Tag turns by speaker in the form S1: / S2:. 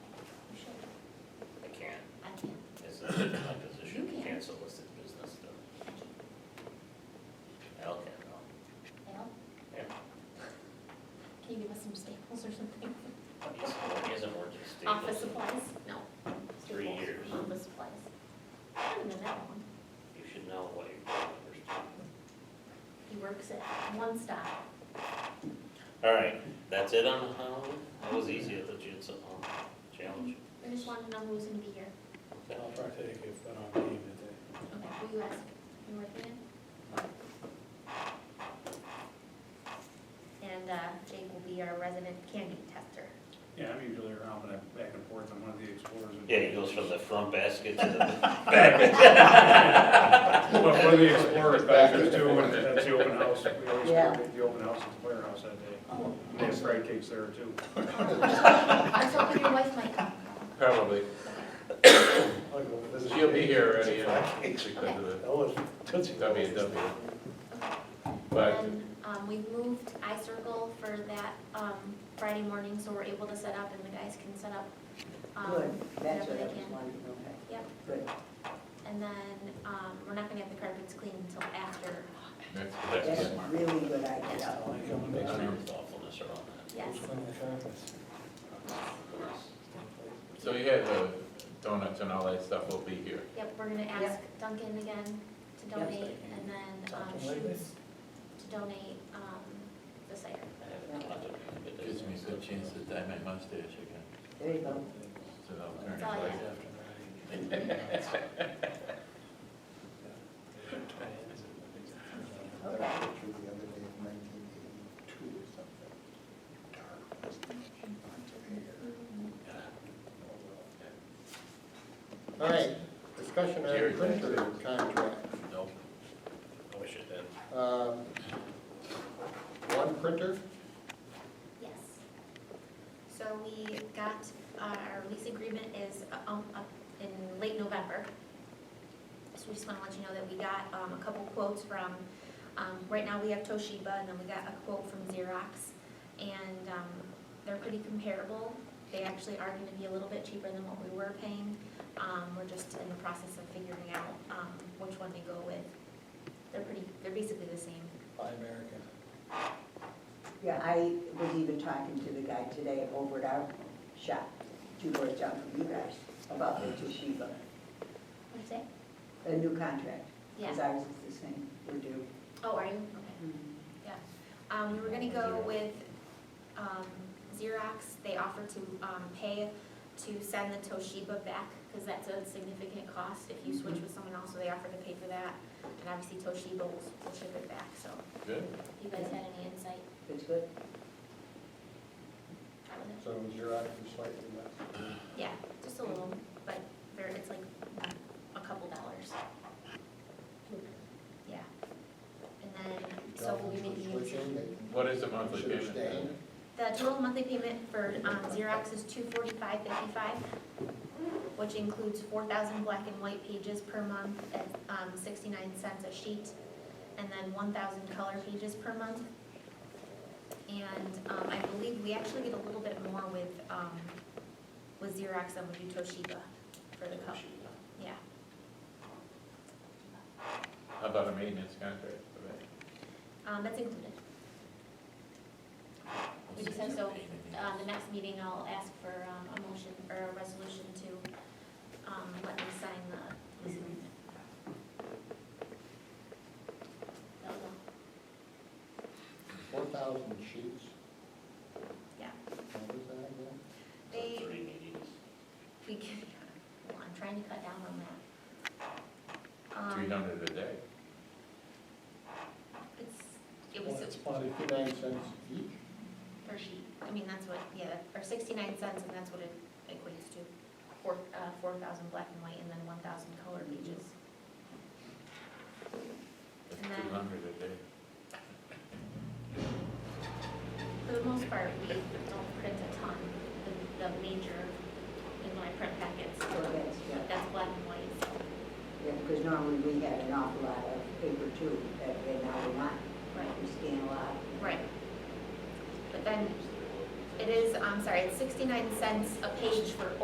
S1: Office supplies? No.
S2: Three
S1: Staples,
S2: years.
S1: Office supplies. Other than that one,
S2: You should know what your numbers do.
S1: he works at One Stop.
S2: All right, that's it on Halloween? That was easy, I thought you had something on challenge.
S1: I just wanted to know who's gonna be here.
S2: Okay.
S3: I'll try to take it, but I don't need it today.
S1: Okay, who you ask? You working in? And uh, Jake will be our resident candy tester.
S4: Yeah, I'm usually around, but I'm back and forth on one of the explorers. and-
S2: Yeah, he goes from the front basket to the,
S4: Well, One of the explorers back there too, and that's the open house. We always
S5: Yeah.
S4: do the open house at the firehouse that day.
S1: Oh,
S4: And They have fried cakes there too.
S1: I was hoping your wife might come.
S6: Probably.
S3: I'll go visit
S6: She'll be
S3: Jake.
S6: here already, and she could do
S3: That was Tootsie
S6: the W and
S3: Rolls.
S6: W.
S1: Okay.
S6: But
S1: And um, we've moved iCircle for that um, Friday morning, so we're able to set up and the guys can set up. um,
S5: Good,
S1: whatever
S5: that's what I
S1: they
S5: was
S1: can.
S5: wondering, okay.
S1: Yep.
S5: Good.
S1: And then um, we're not gonna have the carpets cleaned until after,
S6: that's,
S5: That's
S6: that's
S5: a really good idea.
S3: I'll be coming
S2: makes
S3: back.
S2: me thoughtfulness around
S1: yes.
S3: From the conference.
S2: that.
S6: So you had the donuts and all that stuff will be here.
S1: Yep, we're gonna ask Duncan again to
S5: Yep.
S1: donate and then um,
S3: Something like
S1: Shoots to donate um, the cider.
S6: Gives me a good chance to dye my mustache again,
S5: There you go.
S1: Oh,
S6: so that'll turn
S1: That's all I
S6: it
S1: have.
S7: I had a picture the other day of nineteen eighty-two or something. Dark mustache, lots of hair. All right, discussion
S6: Jerry,
S7: on
S6: thanks.
S7: printer contract.
S6: like. Nope.
S2: I wish it did.
S7: Um, One printer,
S1: Yes. So we got, uh, our lease agreement is uh, um, up in late November. So we just want to let you know that we got um, a couple quotes from, um, right now we have Toshiba, and then we got a quote from Xerox. And um, they're pretty comparable. They actually are going to be a little bit cheaper than what we were paying. Um, We're just in the process of figuring out um, which one to go with. They're pretty, they're basically the same.
S3: Buy American.
S5: Yeah, I was even talking to the guy today over at our shop, two doors down from you guys, about the Toshiba,
S1: What'd you say?
S5: the new contract.
S1: Yeah.
S5: Because ours is the same, we're due.
S1: Oh, are you? Okay. Um, we were gonna go with, um, Xerox, they offered to, um, pay to send the Toshiba back, cause that's a significant cost if you switch with someone else, so they offered to pay for that. And obviously Toshiba will, will ship it back, so
S6: Good.
S1: if you guys had any insight,
S5: That's good.
S1: that was it.
S7: so Xerox is slightly less.
S1: Yeah, just a little, but there, it's like a couple dollars. Yeah. And then, so we'll be making. a
S7: Switching,
S1: decision.
S7: they can-
S6: What is the monthly
S7: should
S6: payment?
S7: stay.
S6: then?
S1: The total monthly payment for um, Xerox is two forty-five fifty-five, which includes four thousand black and white pages per month at um, sixty-nine cents a sheet, and then one thousand color pages per month. And um, I believe we actually get a little bit more with, um, with Xerox than we do Toshiba for the color, yeah.
S6: How about a maintenance contract?
S1: Um, That's included. We just have so, Uh, The next meeting, I'll ask for um, a motion or a resolution to um, let me sign the lease agreement. That was all.
S7: Four thousand sheets?
S1: Yeah.
S7: What was that again?
S1: They,
S2: Three meetings.
S1: we, can- well, I'm trying to cut down on that. Um,
S6: Three hundred a day.
S1: It's, it was
S7: It's Fifty-nine cents each?
S1: per sheet, I mean, that's what, yeah, or sixty-nine cents, and that's what it equates to. Four, uh, four thousand black and white, and then one thousand color pages.
S6: That's
S1: And then-
S6: two hundred a day.
S1: For the most part, we don't print a ton, the, the major, in my print packets,
S5: So that's, yeah,
S1: that's black and white, so,
S5: yeah, because normally we had an awful lot of paper too, that and now we're not.
S1: right,
S5: We scan a lot.
S1: right. But then, it is, I'm sorry, it's sixty-nine cents a page for